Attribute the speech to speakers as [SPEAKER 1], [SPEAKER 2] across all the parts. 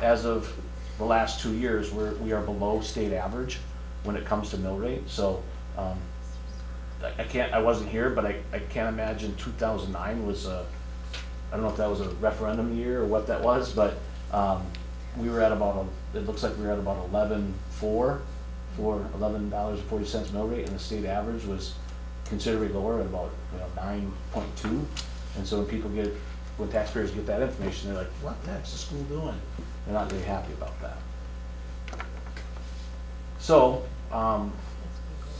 [SPEAKER 1] as of the last two years, we're, we are below state average when it comes to mill rate, so, um, I, I can't, I wasn't here, but I, I can't imagine two thousand nine was a, I don't know if that was a referendum year or what that was, but, um, we were at about, a- it looks like we were at about eleven-four, for eleven dollars and forty cents mill rate, and the state average was considerably lower at about, you know, nine point two. And so when people get, when taxpayers get that information, they're like, what the heck's the school doing? They're not really happy about that. So, um,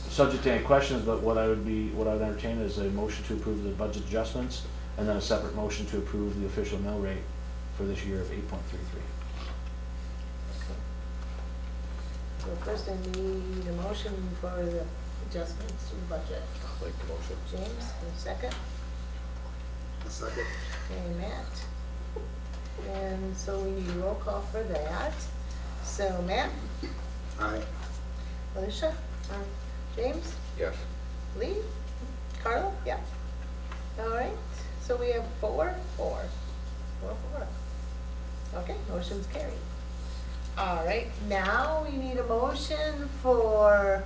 [SPEAKER 1] subject to any questions, but what I would be, what I would entertain is a motion to approve the budget adjustments, and then a separate motion to approve the official mill rate for this year of eight point three three.
[SPEAKER 2] So first I need a motion for the adjustments to the budget.
[SPEAKER 3] Make the motion.
[SPEAKER 2] James, a second,
[SPEAKER 3] Second.
[SPEAKER 2] and Matt. And so we need roll call for that. So Matt,
[SPEAKER 3] Aye.
[SPEAKER 2] Alicia, James,
[SPEAKER 3] Yes.
[SPEAKER 2] Lee, Carla, yeah. All right, so we have four, four, four, four. Okay, motion's carried. All right, now we need a motion for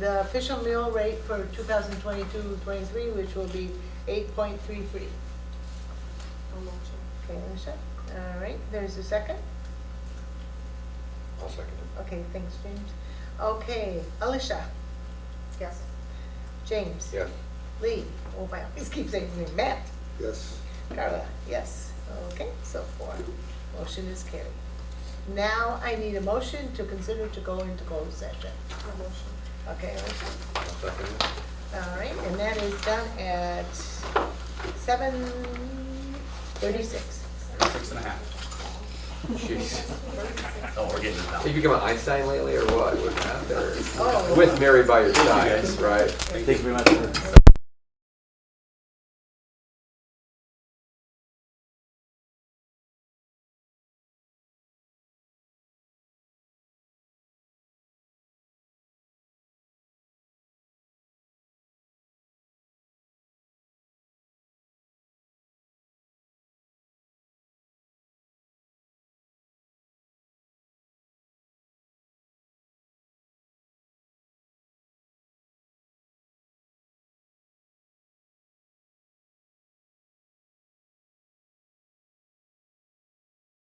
[SPEAKER 2] the official mill rate for 2022-23, which will be 8.33.
[SPEAKER 4] I'll motion.
[SPEAKER 2] Okay, Alicia, all right, there's a second?
[SPEAKER 3] I'll second
[SPEAKER 2] Okay, thanks, James. Okay, Alicia,
[SPEAKER 4] Yes.
[SPEAKER 2] James.
[SPEAKER 3] it. Yes.
[SPEAKER 2] Lee, oh my, I always keep saying his name, Matt,
[SPEAKER 3] Yes.
[SPEAKER 2] Carla, yes, okay, so four, motion is carried. Now I need a motion to consider to go into closed session,
[SPEAKER 4] I'll motion.
[SPEAKER 2] okay,
[SPEAKER 3] I'll second it.
[SPEAKER 2] all right, and that is done at seven thirty-six.
[SPEAKER 5] Six and a half. Jeez. Oh, we're getting it now.
[SPEAKER 3] Have you become an Einstein lately or what? With that, or-
[SPEAKER 2] Oh.
[SPEAKER 3] With Mary by your side, right?
[SPEAKER 1] Thank you very much for